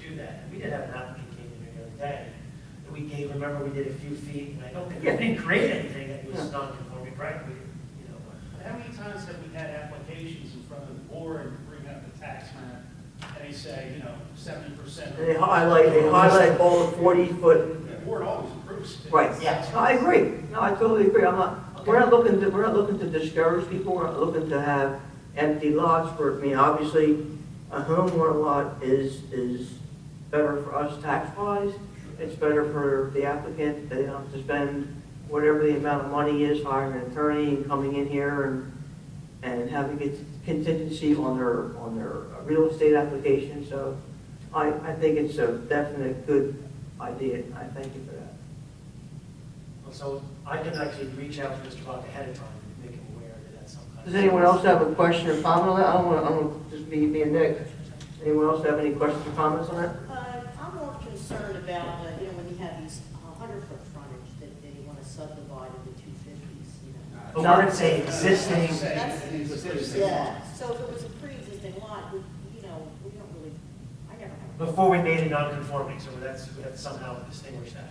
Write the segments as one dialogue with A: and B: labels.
A: had, we did have an applicant came in here the other day, that we gave, remember, we did a few feet, and I don't think, we didn't create anything that was non-conforming, right? We, you know,
B: How many times have we had applications in front of the board and bring up the tax map, and they say, you know, seventy percent?
C: They highlight, they highlight all the forty foot,
B: The board always approves it.
C: right.
A: Yeah.
C: No, I agree, no, I totally agree, I'm not, we're not looking to, we're not looking to discourage people, we're not looking to have empty lots for, I mean, obviously, a home or a lot is, is better for us tax wise, it's better for the applicant, they don't have to spend whatever the amount of money is hiring an attorney and coming in here and, and having a contingency on their, on their real estate application, so I, I think it's a definite good idea, and I thank you for that.
A: so I can actually reach out to Mr. Bach ahead of time and make him aware that that's some kind of.
C: Does anyone else have a question or comment on that? I don't want to, I'm going to just be, be a Nick. Anyone else have any questions or comments on that?
D: Uh, I'm more concerned about, uh, you know, when you have these hundred-foot frontage that they want to subdivide into two fifties, you know.
A: But we're gonna say existing,
B: Say
D: That's-
B: it is existing.
D: Yeah, so if it was a pre-existing lot, we, you know, we don't really, I never have. a-
A: before we made it non-conforming, so that's, we have to somehow distinguish that.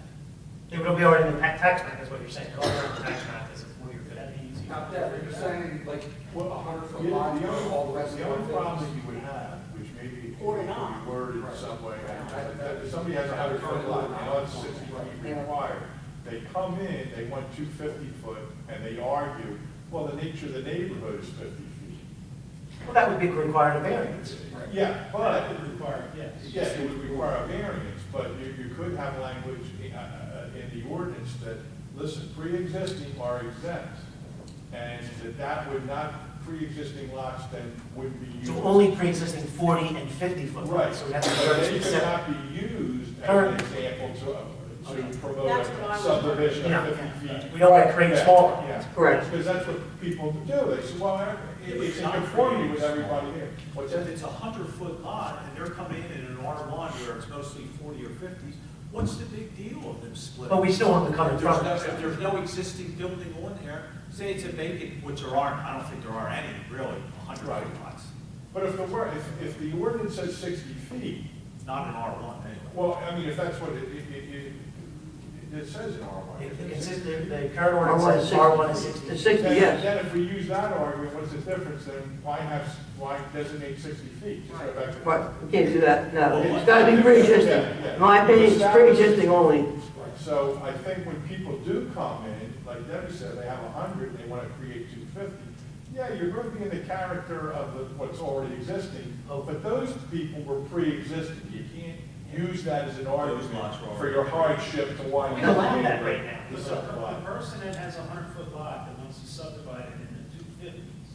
A: It would be already in the pa- tax map, is what you're saying, Go over the tax map is where you're gonna be easy.
E: Not that, but you're saying like, what, a hundred
F: The
E: foot
F: only,
E: line, all the rest of
F: the
E: the
F: only problem
E: property?
F: that you would have, which maybe
D: Or
F: could
D: not.
F: be worded some way, that- that if somebody has a hundred foot lot, they know it's sixty feet required, they come in, they want two fifty foot, and they argue, well, the nature of the neighborhood is fifty feet.
A: Well, that would be required a variance.
F: Yeah, but,
B: Required, yes.
F: yes, it would require a variance, but you, you could have language in, uh, in the ordinance that, listen, pre-existing are exempt, and that that would not, pre-existing lots then would be used.
A: So only pre-existing 40 and 50 foot
F: Right,
A: lots, so we have to be very
F: they could
A: specific.
F: not be used as an
A: Current.
F: example to, to promote
D: That's what I
F: a
D: was-
F: subdivision
A: Yeah.
F: of fifty feet.
A: We don't want to create
F: Yeah,
A: smaller
F: Yeah,
A: ones.
C: Correct.
F: because that's what people do, they say, well, I- it- it's in conformity with everybody here. What's
G: If
F: that?
G: it's a hundred foot lot and they're coming in in an R one where it's mostly forty or fifties, what's the big deal of them splitting?
A: But we still want the covered
G: If there's no,
A: frontage.
G: if there's no existing building on there, say it's a vacant, which there aren't, I don't think there are any really, a hundred
F: Right.
G: foot lots,
F: But if the, wor- if, if the ordinance says sixty feet,
G: not an R one anyway.
F: well, I mean, if that's what it, it, it, it- it says in our
A: If the
F: ordinance.
A: consist- the- the current
C: I want
A: ordinance says R1 is 60.
C: The sixty,
F: Then,
C: yes.
F: then if we use that argument, what's the difference, then why have, why designate sixty feet? Just go back to-
C: But we can't do that, no.
G: Well,
C: It's got to be pre-existing. My opinion, it's pre-existing only.
F: Right, So I think when people do come in, like Debbie said, they have a hundred, they wanna create two fifty, yeah, you're gonna be in the character of the, what's already existing, but those people were pre-existing, you can't use that as an argument
G: lots were already-
F: for your hardship to why you.
A: We don't allow that
F: can't
A: right now.
F: The
B: The
F: subdivision.
B: person that has a hundred-foot lot that wants to subdivide it into two fifties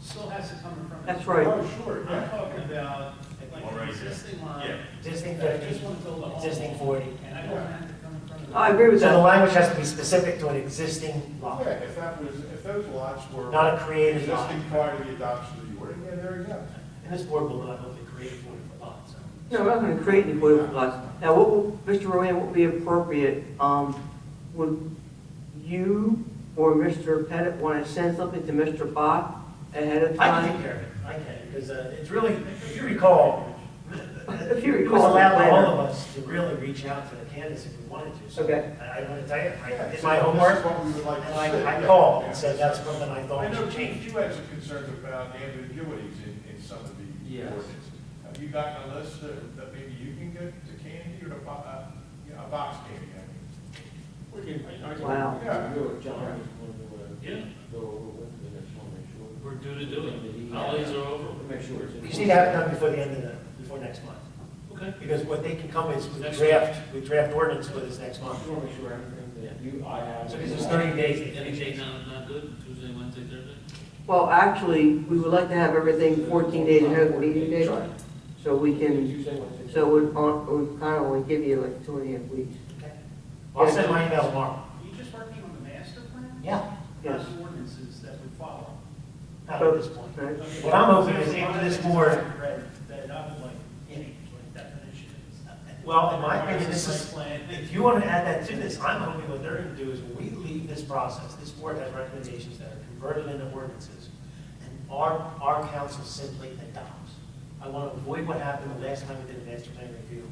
B: still has to come in front of.
C: That's
B: the-
C: right.
F: Oh, sure,
B: I'm
F: yeah.
B: talking about like
G: Well,
B: an
G: right, yeah.
B: existing lot.
G: Yeah.
A: Existing
B: that just
A: 50,
B: want to build a home.
A: existing 40.
B: And I don't have to come in front of. the-
C: I agree with
A: So the
C: that.
A: language has to be specific to an existing lot,
F: Yeah, if that was, if those lots were.
A: not a created lot.
F: Existing prior to the adoption of the ordinance, yeah, there you go.
A: And this board will not hopefully create 40 foot lots, so.
C: No, we're not going to create any political lots. Now, what, would- Mr. Rowan, what would be appropriate, um, would you or Mr. Pettit want to send something to Mr. Bach ahead of
A: I can take
C: time?
A: care of it, I can, because uh, it's really, if you recall,
C: If you
A: it
C: recall
A: was allowed
C: later.
A: all of us to really reach out to the candidates if we wanted to. So
C: Okay.
A: I want to tell you, I
F: Yeah,
A: did
F: so
A: my
F: this is
A: homework,
F: what we would like to
A: and I,
F: see.
A: I called
F: Yeah.
A: and said that's something I
F: I
A: thought
F: know
A: should
F: you
A: change.
F: you had some concerns about ambiguities in, in some of the
E: Yes.
F: ordinances. Have you gotten a list that, that maybe you can get to Candy or to, Bo- uh, you know, a box candy? I mean?
E: We can- I can-
C: Wow.
F: Yeah.
E: Do it, John, if you
H: Yeah.
E: want to, uh, go over with it, I just wanna make sure.
H: We're due to do it. Holidays are over.
E: Make sure it's. in-
A: You just need to have it done before the end of the, before next month.
H: Okay.
A: Because what they can come is with
H: Next
A: draft, with draft ordinance with us next
E: I
A: month.
E: just wanna make sure everything that you, I have.
A: So this is 30 days.
H: Any day now is not good, Tuesday, Wednesday, Thursday?
C: Well, actually, we would like to have everything 14 days ahead of the meeting date,
E: Sure.
C: so we can,
E: Tuesday, Wednesday.
C: so we'd, on- we'd kind of only give you like two and a half weeks.
A: Okay. I'll send my email tomorrow.
B: Are you just working on the master plan?
A: Yeah.
C: Yes.
B: Not the Ordinances that would follow.
A: Not at this point.
C: Right?
A: What I'm hoping is after this board-
B: Read That I would like, any like definition. is-
A: Well, in my opinion, this is,
B: Site plan.
A: if you want to add that to this, I'm hoping what they're going to do is when we leave this process, this board has recommendations that are converted into ordinances, and our, our council simply adopts. I want to avoid what happened the last time we did a master plan review,